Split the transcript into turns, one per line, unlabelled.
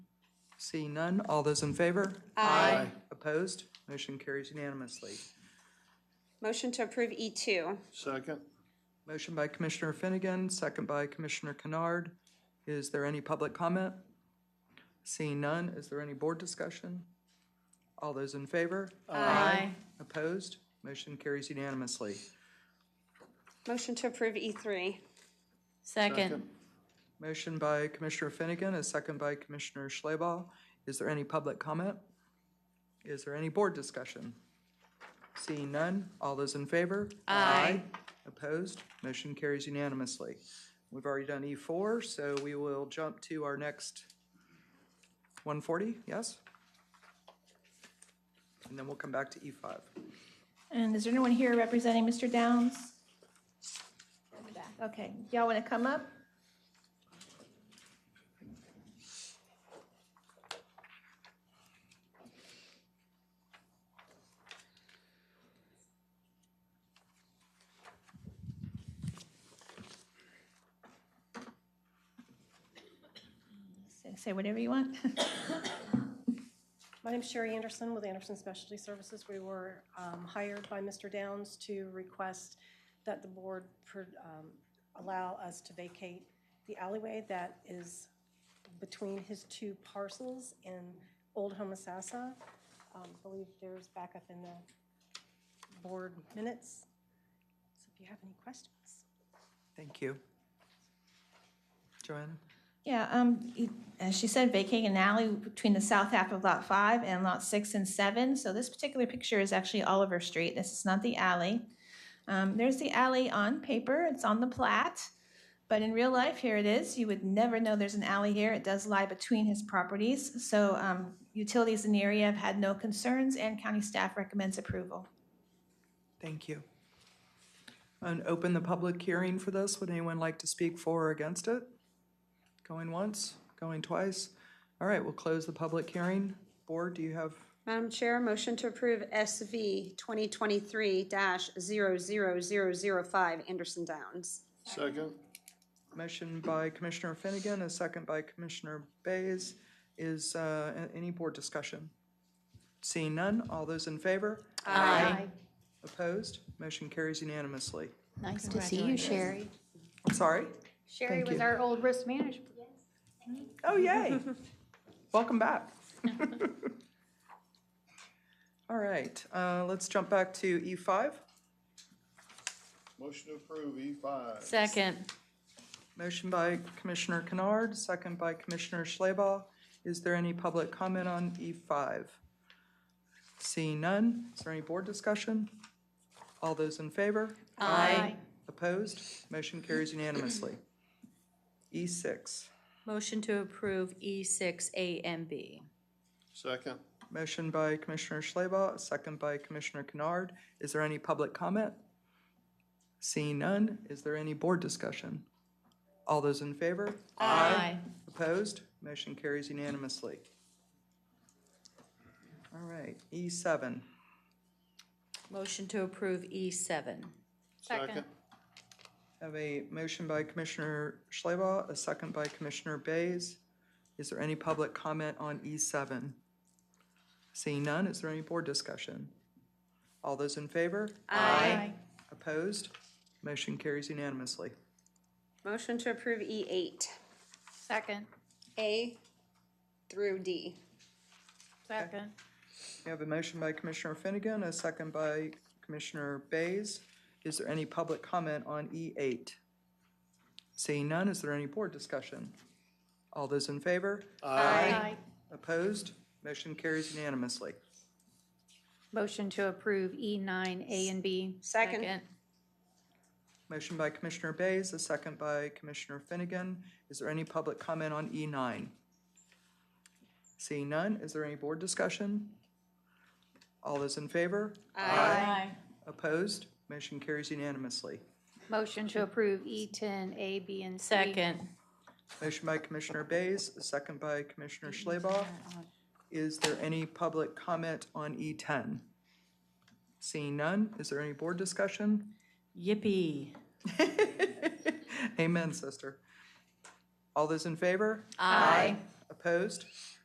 Seeing none, all those in favor? Aye. Opposed? Motion carries unanimously.
Motion to approve E E2.
Second.
Motion by Commissioner Finnegan, second by Commissioner Kennard. Is there any public comment? Seeing none, is there any board discussion? All those in favor?
Aye.
Opposed? Motion carries unanimously.
Motion to approve E E3.
Second.
Motion by Commissioner Finnegan, a second by Commissioner Schleba. Is there any public comment? Is there any board discussion? Seeing none, all those in favor? Aye. Opposed? Motion carries unanimously. We've already done E4, so we will jump to our next 140, yes? And then we'll come back to E E5.
And is there anyone here representing Mr. Downs? Okay, y'all want to come up? Say- Say whatever you want.
My name's Sherry Anderson with Anderson Specialty Services. We were um, hired by Mr. Downs to request that the board per- um, allow us to vacate the alleyway that is between his two parcels in Old Homosassa. Um, I believe there's backup in the board minutes. So if you have any questions.
Thank you. Joanna?
Yeah, um, it- as she said, vacating an alley between the south half of Lot 5 and Lot 6 and 7. So this particular picture is actually Oliver Street. This is not the alley. Um, There's the alley on paper, it's on the plat, but in real life, here it is. You would never know there's an alley here. It does lie between his properties. So um, utilities in the area have had no concerns, and county staff recommends approval.
Thank you. And open the public hearing for this. Would anyone like to speak for or against it? Going once, going twice? All right, we'll close the public hearing. Board, do you have,
Madam Chair, motion to approve SV 2023-00005 Anderson Downs.
Second.
motion by Commissioner Finnegan, a second by Commissioner Bays. Is uh, a- any board discussion? Seeing none, all those in favor?
Aye.
Opposed? Motion carries unanimously.
Nice to see you, Sherry.
I'm sorry?
Sherry
Thank
was
you.
our old risk manager.
Oh, yay. Welcome back. All right, uh, let's jump back to E E5.
Motion to approve E five.
Second.
Motion by Commissioner Kennard, second by Commissioner Schleba. Is there any public comment on E5? Seeing none, is there any board discussion? All those in favor?
Aye.
Opposed? Motion carries unanimously. E E6.
Motion to approve E6 A and B.
Second.
Motion by Commissioner Schleba, second by Commissioner Kennard. Is there any public comment? Seeing none, is there any board discussion? All those in favor?
Aye.
Opposed? Motion carries unanimously. All right, E E7.
Motion to approve E E7.
Second.
Have a motion by Commissioner Schleba, a second by Commissioner Bays. Is there any public comment on E7? Seeing none, is there any board discussion? All those in favor?
Aye.
Opposed? Motion carries unanimously.
Motion to approve E E8,
Second.
A through D.
Second.
We have a motion by Commissioner Finnegan, a second by Commissioner Bays. Is there any public comment on E8? Seeing none, is there any board discussion? All those in favor?
Aye.
Opposed? Motion carries unanimously.
Motion to approve E nine, A and B.
Second.
Motion by Commissioner Bays, a second by Commissioner Finnegan. Is there any public comment on E9? Seeing none, is there any board discussion? All those in favor?
Aye.
Opposed? Motion carries unanimously.
Motion to approve E ten, A, B, and C.
Second.
Motion by Commissioner Bays, a second by Commissioner Schleba. Is there any public comment on E10? Seeing none, is there any board discussion?
Yippee.
Amen, sister. All those in favor?
Aye.
Opposed?